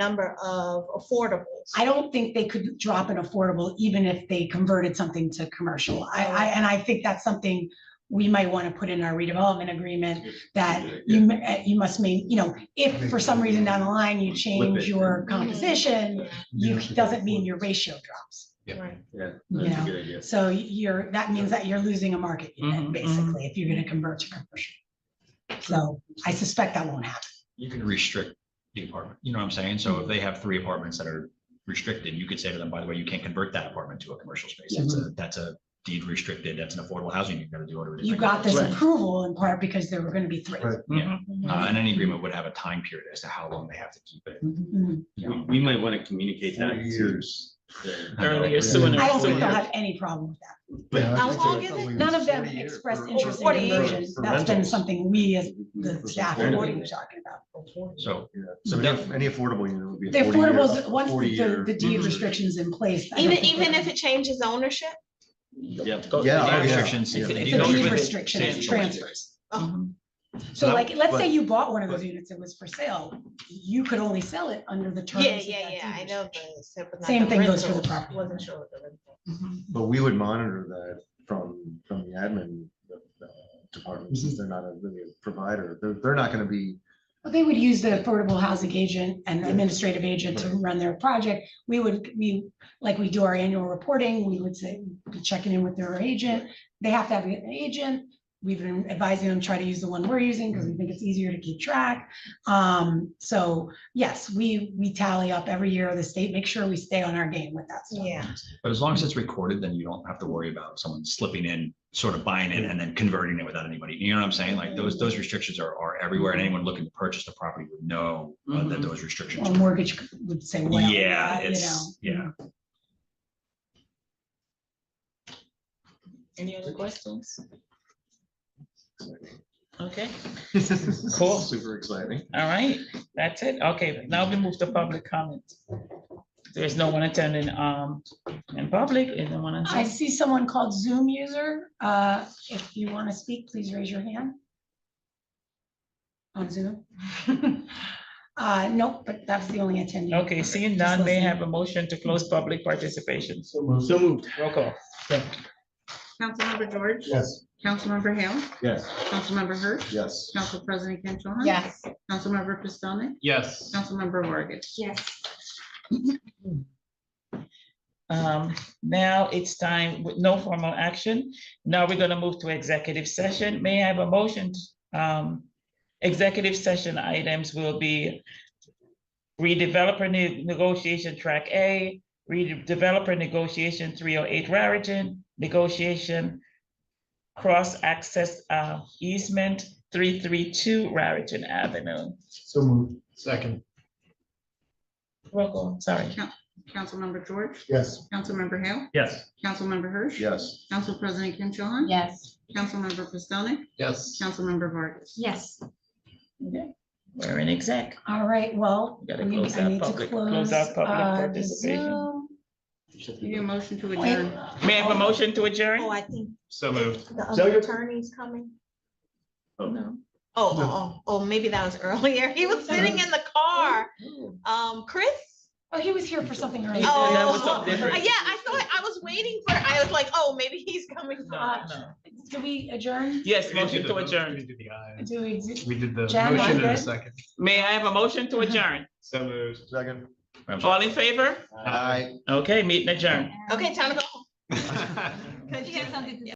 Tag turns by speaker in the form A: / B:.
A: number of affordables.
B: I don't think they could drop an affordable even if they converted something to commercial. I, I, and I think that's something we might want to put in our redevelopment agreement that you, m- uh, you must mean, you know, if for some reason down the line you change
C: it.
B: your composition, you,
C: Yeah.
B: doesn't mean your ratio drops,
C: Yeah.
A: Right.
C: Yeah.
B: you
C: that's a
B: know?
C: good idea.
B: So you're, that means that you're losing a market unit,
C: Mhm, mhm.
B: basically, if you're going to convert to commercial. So I suspect that won't happen.
C: You can restrict the apartment, you know what I'm saying? So
B: Mm-hmm.
C: if they have three apartments that are restricted, you could say to them, by the way, you can't convert that apartment to a commercial space. That's
B: Mm-hmm.
C: a, that's a deed restricted, that's an affordable housing, you've got to do order.
B: You got this
D: Right.
B: approval in part because there were going to be three. Mm-hmm.
D: Right.
C: Yeah, uh, and any agreement would have a time period as to how long they have to keep it.
B: Mhm.
E: We,
C: you know?
E: we might want to communicate that
D: Four
E: to.
D: years.
E: the-
F: Earlier
D: Yeah.
F: sooner.
B: I don't think
F: sooner.
B: they'll have any problem with that.
D: Yeah, I
A: How
D: think
A: long
D: it's
A: is it?
D: only
B: None of them
D: 40 years
B: expressed
D: for-
B: interest in
A: Forty years.
B: conversion.
D: For
B: That's been
D: rentals.
B: something we as
D: For-
B: the
D: for
B: staff
D: rentals.
B: board were talking about.
C: So,
D: Yeah. So any any affordable unit would be. a
B: The
D: 40 year-
B: affordables, once
D: 40
B: the,
D: year- Mm-hmm.
B: the deed
C: Mhm.
B: restrictions in place. I don't
A: Even,
B: think
A: even
B: they're-
A: if it changes ownership?
E: Yeah.
C: Go-
D: Yeah,
C: the
D: oh, yeah.
C: restrictions-
E: It's-
C: the
B: It's
C: deed
B: a
C: restriction-
B: deed restriction,
C: stands
B: it's
C: for what it
B: transfers. Mm-hmm.
C: says.
A: Uh-huh.
C: Mhm.
B: So
C: that-
B: like, let's say
D: but-
B: you bought one of those
D: but-
B: units, it was for sale, you could only sell it under the terms.
A: Yeah,
B: of
A: yeah,
B: that
A: yeah,
B: deed
A: I know.
B: restriction.
A: the- so, but not
B: Same
A: the
B: thing goes for the
A: rental.
B: property.
A: Wasn't sure with the rental.
B: Mm-hmm.
D: But we would monitor that from, from the admin uh, department, since
B: Mm-hmm.
D: they're not a really a provider. They're, they're not gonna be,
B: Well, they would use the affordable housing agent and the administrative agent to
D: Right.
B: run their project. We would, we, like we do our annual reporting, we would say, be checking in with their agent. They have to have an agent. We've been advising them, try to use the one we're using because we
C: Mm-hmm.
B: think it's easier to keep track. Um, so yes, we, we tally up every year of the state, make sure we stay on our game with that stuff.
A: Yeah.
C: But as long as it's recorded, then you don't have to worry about someone slipping in, sort of buying it and then converting it without anybody. You know what I'm saying? Like those, those restrictions are, are everywhere and anyone looking to purchase the property would know uh, that
B: Mm-hmm.
F: Mhm.
C: those restrictions.
B: Or mortgage would say, well,
C: Yeah,
B: you know.
C: it's, yeah.
F: Any other questions? Okay, Cool.
D: super exciting.
F: all right, that's it. Okay, now we move to public comment. There's no one attending, um, in public, and no one in
B: I see someone called Zoom user. Uh, If you want to speak, please raise your hand. On Zoom. Uh, Nope, but that's the only attendee.
F: Okay, seeing none, may I have a motion to close public participation.
D: So moved.
F: Roll call.
G: Councilmember George,
D: Yes.
G: Councilmember Hale,
D: Yes.
G: Councilmember Hirsch,
D: Yes.
G: Council President Kent Cho Han.
A: Yes.
G: Councilmember Pistonik,
E: Yes.
G: Councilmember Vargas.
A: Yes.
F: Um, now it's time with no formal action. Now we're gonna move to executive session. May I have a motion? Um, executive session items will be redeveloper ne- negotiation track A, redeveloper negotiation three oh eight Raritan, negotiation cross access uh easement three three two Raritan Avenue.
D: So moved. Second.
F: Roll call, sorry.
G: Councilmember George,
D: Yes.
G: Councilmember Hale,
E: Yes.
G: Councilmember Hirsch.
D: Yes.
G: Council President Kent Cho Han.
A: Yes.
G: Councilmember Pistonik,
D: Yes.
G: Councilmember Vargas.
A: Yes.
F: Okay. We're in exec.
B: All right, well.
F: We gotta
B: we-
F: close
B: I
F: our
B: need to
F: public- close our public
B: uh, the
F: participation.
B: Zoom.
G: Need a motion to
B: Wait.
G: adjourn.
F: May I have a motion to adjourn?
A: Oh, I think
E: So moved.
A: the other attorney's coming.
F: No.
A: Oh, oh, oh, oh, maybe that was earlier. He was sitting in the car. Um, Chris?
B: Oh, he was here for something earlier.
F: said that was
A: Oh,
F: something
A: yeah,
F: different.
A: I saw it. I was waiting for, I was like, oh, maybe he's coming.
F: No, no.
B: Do we adjourn?
F: Yes, motion to adjourn.
B: Do we, do-
H: We did the
B: Jan,
H: motion in
B: Margaret?
H: a second.
F: May I have a motion to adjourn?
E: So moved.
D: Second.
C: I'm sorry.
F: All in favor?
D: Aye.
F: Okay, meeting adjourned.
A: Okay, time to go.
H: Aye.
A: Cause you got something to